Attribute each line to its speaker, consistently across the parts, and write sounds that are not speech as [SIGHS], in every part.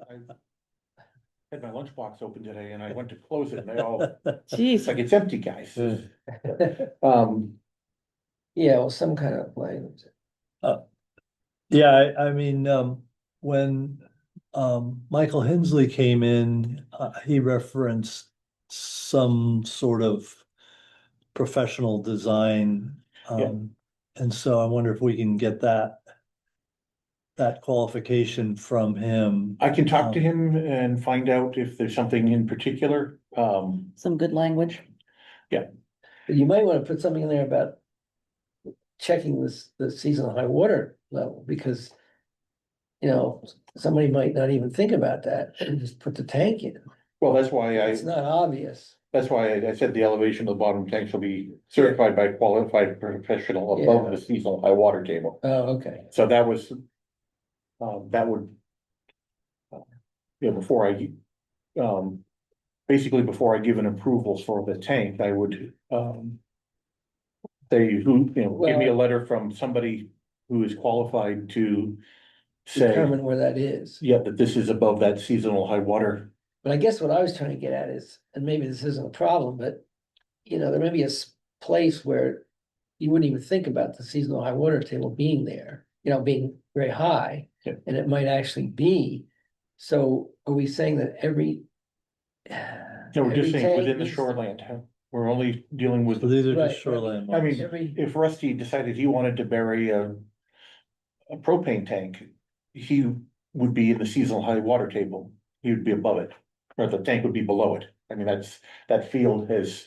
Speaker 1: I Had my lunchbox open today and I went to close it and they all, it's
Speaker 2: Jeez,
Speaker 1: like, it's empty, guys. Um,
Speaker 3: Yeah, well, some kind of language.
Speaker 4: [LAUGHS] Yeah, I, I mean, um, when, um, Michael Hensley came in, uh, he referenced some sort of professional design.
Speaker 1: Yeah.
Speaker 4: Um, and so I wonder if we can get that, that qualification from him.
Speaker 1: I can talk to him and find out if there's something in particular. Um,
Speaker 2: some good language.
Speaker 3: But you might wanna put something in there about checking this, the seasonal high water level, because you know, somebody might not even think about that and just put the tank in.
Speaker 1: well, that's why I,
Speaker 3: It's not obvious.
Speaker 1: that's why I said the elevation of the bottom tank shall be certified by qualified professional above the seasonal high water table.
Speaker 3: Oh, okay.
Speaker 1: So that was, um, that would. uh, You know, before I, um, basically before I give an approval for the tank, I would, um. They, who, you know, give me a letter from somebody who is qualified to say,
Speaker 3: Determine where that is.
Speaker 1: yeah, that this is above that seasonal high water.
Speaker 3: But I guess what I was trying to get at is, and maybe this isn't a problem, but you know, there may be a s- place where you wouldn't even think about the seasonal high water table being there, you know, being very high.
Speaker 1: Yeah.
Speaker 3: And it might actually be. So are we saying that every? [SIGHS]
Speaker 1: No, we're just
Speaker 3: every
Speaker 1: saying within
Speaker 3: tank
Speaker 1: the
Speaker 3: needs-
Speaker 1: shoreland, huh? we're only dealing with,
Speaker 4: So These are
Speaker 3: Right,
Speaker 4: just
Speaker 3: right.
Speaker 4: shoreline
Speaker 1: I mean-
Speaker 4: ones.
Speaker 3: Every,
Speaker 1: if Rusty decided he wanted to bury a. A propane tank, he would be in the seasonal high water table, he would be above it, or the tank would be below it. I mean, that's, that field has,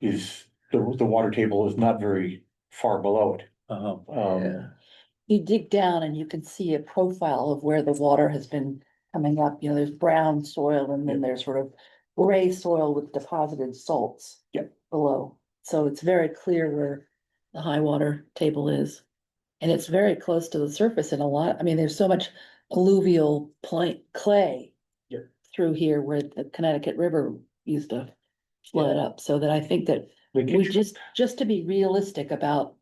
Speaker 1: is, the, the water table is not very far below it.
Speaker 4: Uh-huh.
Speaker 1: Um,
Speaker 3: yeah,
Speaker 2: You dig down and you can see a profile of where the water has been coming up. You know, there's brown soil and then there's sort of gray soil with deposited salts.
Speaker 1: Yep.
Speaker 2: Below. So it's very clear where the high water table is. And it's very close to the surface in a lot, I mean, there's so much alluvial plain clay.
Speaker 1: Yep.
Speaker 2: Through here where the Connecticut River used to flood up. So that I think that
Speaker 1: they get
Speaker 2: we
Speaker 1: you-
Speaker 2: just, just to be realistic about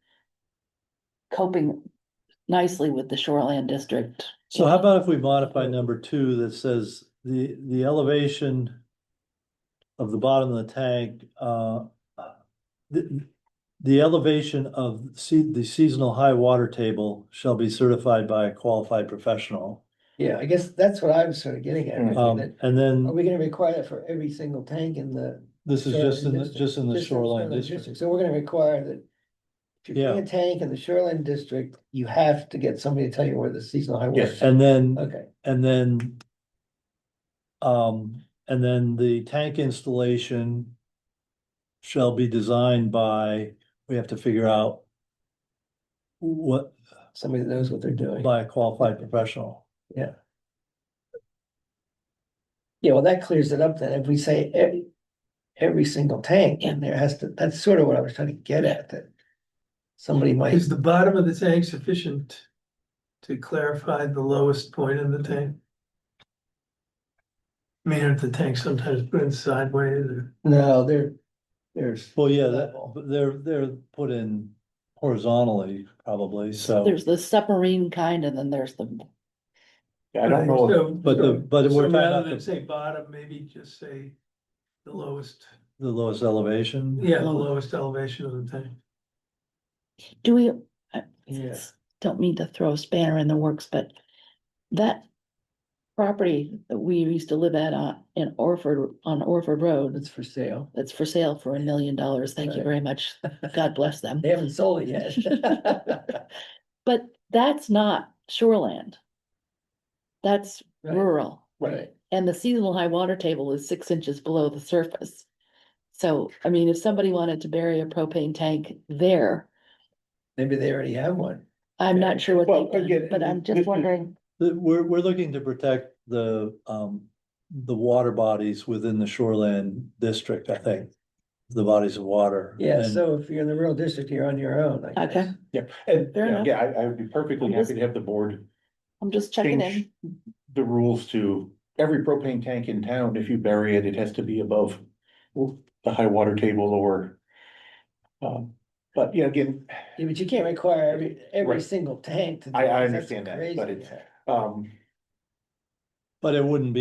Speaker 2: coping nicely with the shoreland district.
Speaker 4: So how about if we modify number two that says the, the elevation of the bottom of the tank, uh, the, the elevation of sea, the seasonal high water table shall be certified by a qualified professional.
Speaker 3: yeah, I guess that's what I was sort of getting at.
Speaker 4: Um,
Speaker 3: that
Speaker 4: and
Speaker 3: Are
Speaker 4: then
Speaker 3: we gonna require that for every single tank in the?
Speaker 4: this is just in the, just in the
Speaker 3: Just in
Speaker 4: shoreline district.
Speaker 3: So we're gonna require that. If you're putting a tank in the shoreline district, you have to get somebody to tell you where the seasonal high water.
Speaker 1: Yes.
Speaker 3: is.
Speaker 4: And then
Speaker 3: Okay,
Speaker 4: And then um, and then the tank installation shall be designed by, we have to figure out what,
Speaker 3: somebody that knows what they're doing.
Speaker 4: by a qualified professional.
Speaker 3: Yeah, well, that clears it up then. If we say every, every single tank in there has to, that's sort of what I was trying to get at that. Somebody might,
Speaker 5: Is the bottom of the tank sufficient to clarify the lowest point in the tank? I mean, aren't the tanks sometimes put in sideways or?
Speaker 3: no, there, there's,
Speaker 4: Well, yeah, that,
Speaker 3: Level.
Speaker 4: but they're, they're put in horizontally probably, so,
Speaker 2: There's the submarine kind and then there's the,
Speaker 1: I don't know,
Speaker 5: So-
Speaker 4: but the, but
Speaker 5: So
Speaker 4: we're talking about
Speaker 5: rather than
Speaker 4: the,
Speaker 5: say bottom, maybe just say the lowest,
Speaker 4: the lowest elevation.
Speaker 5: yeah, the lowest elevation of the tank.
Speaker 2: do we? I-
Speaker 3: Yeah.
Speaker 2: Don't mean to throw a spanner in the works, but that property that we used to live at uh, in Orford, on Orford Road,
Speaker 3: it's for sale.
Speaker 2: that's for sale for a million dollars. Thank you
Speaker 3: Right.
Speaker 2: very much. God bless them.
Speaker 3: They haven't sold it yet.
Speaker 2: But that's not shoreland. That's
Speaker 3: Right.
Speaker 2: rural.
Speaker 3: [LAUGHS] Right,
Speaker 2: And the seasonal high water table is six inches below the surface. So, I mean, if somebody wanted to bury a propane tank there,
Speaker 3: maybe they already have one.
Speaker 2: I'm
Speaker 1: Yeah.
Speaker 2: not sure what
Speaker 1: Well,
Speaker 2: they've done,
Speaker 1: again,
Speaker 2: but I'm just
Speaker 1: this is-
Speaker 2: wondering.
Speaker 4: The- We're, we're looking to protect the, um, the water bodies within the shoreland district, I think. The bodies of water.
Speaker 3: Yeah,
Speaker 4: And-
Speaker 3: so if you're in the rural district, you're on your own, I
Speaker 2: Okay.
Speaker 3: guess.
Speaker 1: yeah, and,
Speaker 2: Fair enough.
Speaker 1: yeah, I, I would be perfectly happy to have the board
Speaker 2: I'm just checking
Speaker 1: Change.
Speaker 2: in.
Speaker 1: the rules to every propane tank in town, if you bury it, it has to be above the high water table or. Um, but yeah, again,
Speaker 3: Yeah, but you can't require every, every
Speaker 1: Right.
Speaker 3: single tank to. do
Speaker 1: I- I
Speaker 3: this. That's
Speaker 1: understand that,
Speaker 3: crazy.
Speaker 1: but it's- um.
Speaker 4: But it wouldn't be